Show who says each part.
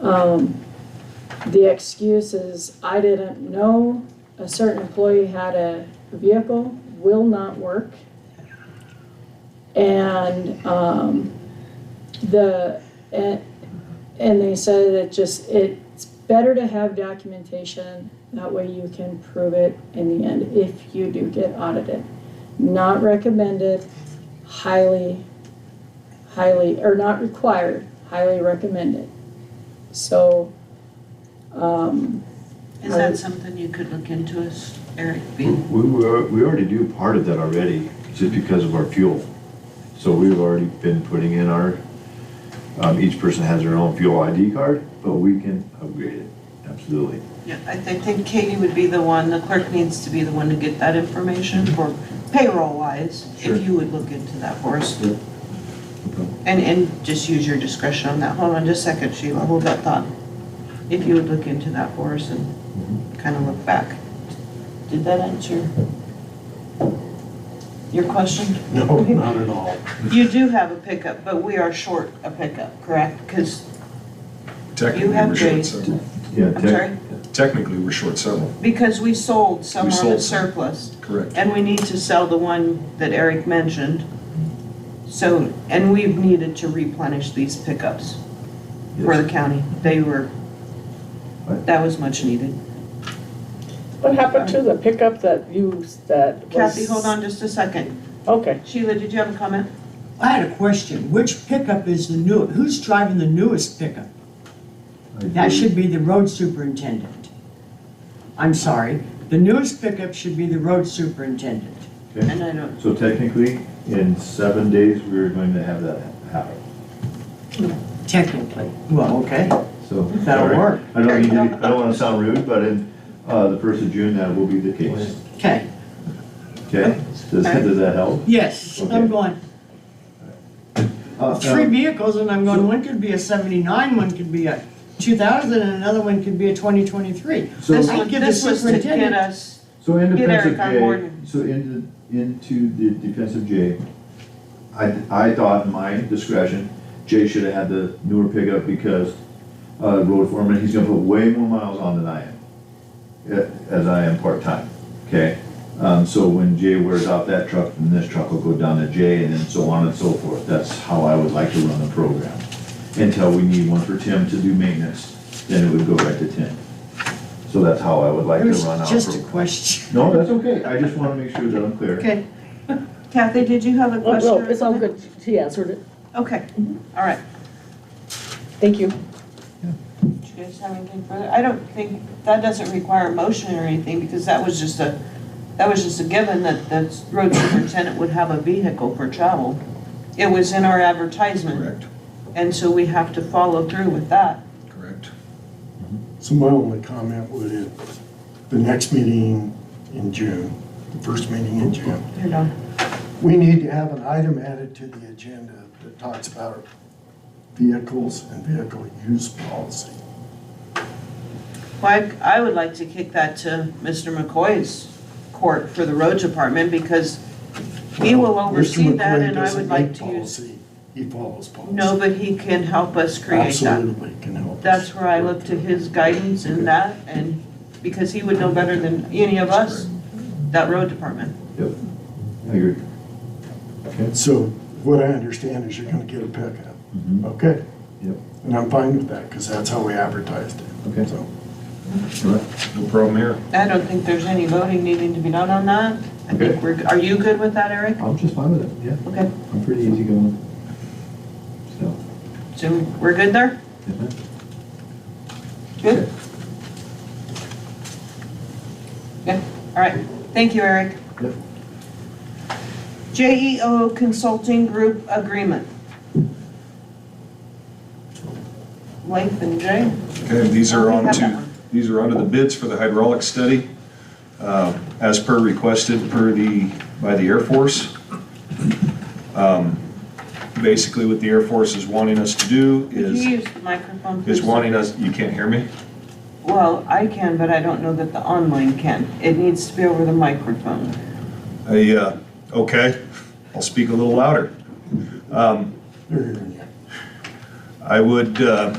Speaker 1: Um, the excuse is, I didn't know a certain employee had a vehicle, will not work. And, um, the, and, and they said it just, it's better to have documentation, that way you can prove it in the end, if you do get audited. Not recommended, highly, highly, or not required, highly recommended. So, um,
Speaker 2: Is that something you could look into, is Eric?
Speaker 3: We,
Speaker 4: Hmm?
Speaker 3: we were- we already do part of that already, just because of our fuel. So we've already been putting in our, um, each person has their own fuel ID card, but we can upgrade it, absolutely.
Speaker 2: Yeah, I thi- think Katie would be the one, the clerk needs to be the one to get that information for payroll wise,
Speaker 3: Sure.
Speaker 2: if you would look into that for us.
Speaker 3: Yeah.
Speaker 2: And, and just use your discretion on that. Hold on just a second, Sheila, hold that thought. If you would look into that for us
Speaker 4: Mm-hmm.
Speaker 2: and kind of look back. Did that answer your question?
Speaker 4: No, not at all.
Speaker 2: You do have a pickup, but we are short a pickup, correct? Because,
Speaker 5: Technically,
Speaker 2: have
Speaker 5: we're short
Speaker 2: raised-
Speaker 5: several.
Speaker 3: Yeah,
Speaker 2: I'm
Speaker 3: tech-
Speaker 2: sorry?
Speaker 5: Technically, we're short several,
Speaker 2: because we sold some
Speaker 5: We
Speaker 2: on the
Speaker 5: sold some.
Speaker 2: surplus.
Speaker 5: correct.
Speaker 2: And we need to sell the one that Eric mentioned. So, and we've needed to replenish these pickups for
Speaker 3: yes.
Speaker 2: the county. They were,
Speaker 3: Right.
Speaker 2: that was much needed.
Speaker 6: What happened to the pickup that you, that was?
Speaker 2: Kathy, hold on just a second.
Speaker 6: Okay,
Speaker 2: Sheila, did you have a comment?
Speaker 4: I had a question. Which pickup is the new, who's driving the newest pickup?
Speaker 3: I
Speaker 4: That
Speaker 3: do.
Speaker 4: should be the road superintendent. I'm sorry, the newest pickup should be the road superintendent.
Speaker 3: Okay.
Speaker 2: And I don't,
Speaker 3: So technically, in seven days, we're going to have that happen,
Speaker 4: Technically, well, okay,
Speaker 3: so.
Speaker 4: That'll
Speaker 3: sorry.
Speaker 4: work.
Speaker 3: I don't mean to, be- I don't wanna sound rude, but in, uh, the first of June, that will be the case,
Speaker 4: okay.
Speaker 3: okay? Does, does that help?
Speaker 4: Yes,
Speaker 3: Okay.
Speaker 4: I'm going,
Speaker 3: Uh,
Speaker 4: three
Speaker 3: um,
Speaker 4: vehicles and I'm going, one could be a seventy-nine, one could be a two thousand, and another one could be a twenty twenty-three.
Speaker 3: so-
Speaker 2: this
Speaker 4: I
Speaker 2: one,
Speaker 4: give the
Speaker 2: this was to get
Speaker 4: superintendent-
Speaker 2: us,
Speaker 3: So in
Speaker 2: Get
Speaker 3: defense
Speaker 2: Eric
Speaker 3: of
Speaker 2: on
Speaker 3: Jay,
Speaker 2: board.
Speaker 3: so into, into the defense of Jay, I, I thought in my discretion, Jay should have had the newer pickup because, uh, road foreman, he's gonna put way more miles on than I am. eh, As I am part-time, okay? Um, so when Jay wears out that truck, then this truck will go down to Jay and then so on and so forth. That's how I would like to run the program. Until we need one for Tim to do maintenance, then it would go right to Tim. So that's how I would like
Speaker 4: It
Speaker 3: to
Speaker 4: was
Speaker 3: run our program.
Speaker 4: just a question.
Speaker 3: No, that's okay, I just wanna make sure that I'm clear.
Speaker 4: Okay,
Speaker 2: Kathy, did you have a
Speaker 6: oh,
Speaker 2: question?
Speaker 6: no,
Speaker 2: or
Speaker 6: it's all
Speaker 2: comment?
Speaker 6: good, she answered it,
Speaker 2: Okay, all right.
Speaker 6: thank you.
Speaker 2: Do you guys have anything further? I don't think, that doesn't require a motion or anything, because that was just a, that was just a given that the road superintendent would have a vehicle for travel. It was in our advertisement,
Speaker 5: Correct,
Speaker 2: and so we have to follow through with that.
Speaker 5: correct.
Speaker 7: So my only comment would is, the next meeting in June, the first meeting in June,
Speaker 2: You know,
Speaker 7: we need to have an item added to the agenda that talks about vehicles and vehicle use policy.
Speaker 2: Well, I, I would like to kick that to Mr. McCoy's court for the road department, because he will oversee
Speaker 7: Mr.
Speaker 2: that,
Speaker 7: McQueen
Speaker 2: and I would
Speaker 7: doesn't
Speaker 2: like
Speaker 7: make
Speaker 2: to use.
Speaker 7: policy, He follows policy.
Speaker 2: No, but he can help us create that.
Speaker 7: Absolutely can help. us.
Speaker 2: that's where I look to his guidance in that, and because he would know better than any of us, that road department.
Speaker 3: Yep, I agree.
Speaker 7: So what I understand is you're gonna get a pickup,
Speaker 3: Mhm.
Speaker 7: okay?
Speaker 3: Yep.
Speaker 7: And I'm fine with that, because that's how we advertised it.
Speaker 3: Okay.
Speaker 7: So,
Speaker 5: No problem here.
Speaker 2: I don't think there's any voting needing to be done on that. I
Speaker 3: Okay.
Speaker 2: think we're, are you good with that, Eric?
Speaker 3: I'm just fine with it, yeah,
Speaker 2: Okay,
Speaker 3: I'm pretty easy going. So,
Speaker 2: so we're good there?
Speaker 3: yeah, man.
Speaker 2: Good? Good, all right. Thank you, Eric.
Speaker 3: Yep.
Speaker 2: JEO Consulting Group Agreement. Leith and Jay?
Speaker 5: Okay, these are
Speaker 2: I
Speaker 5: on
Speaker 2: have that
Speaker 5: to,
Speaker 2: one.
Speaker 5: these are onto the bids for the hydraulic study, uh, as per requested per the, by the Air Force. Um, Basically, what the Air Force is wanting us to do
Speaker 2: Could you
Speaker 5: is,
Speaker 2: use the microphone, please?
Speaker 5: is wanting us, you can't hear me?
Speaker 2: Well, I can, but I don't know that the online can. It needs to be over the microphone.
Speaker 5: I, uh, okay, I'll speak a little louder. Um,
Speaker 7: they're hearing you.
Speaker 5: I would, uh,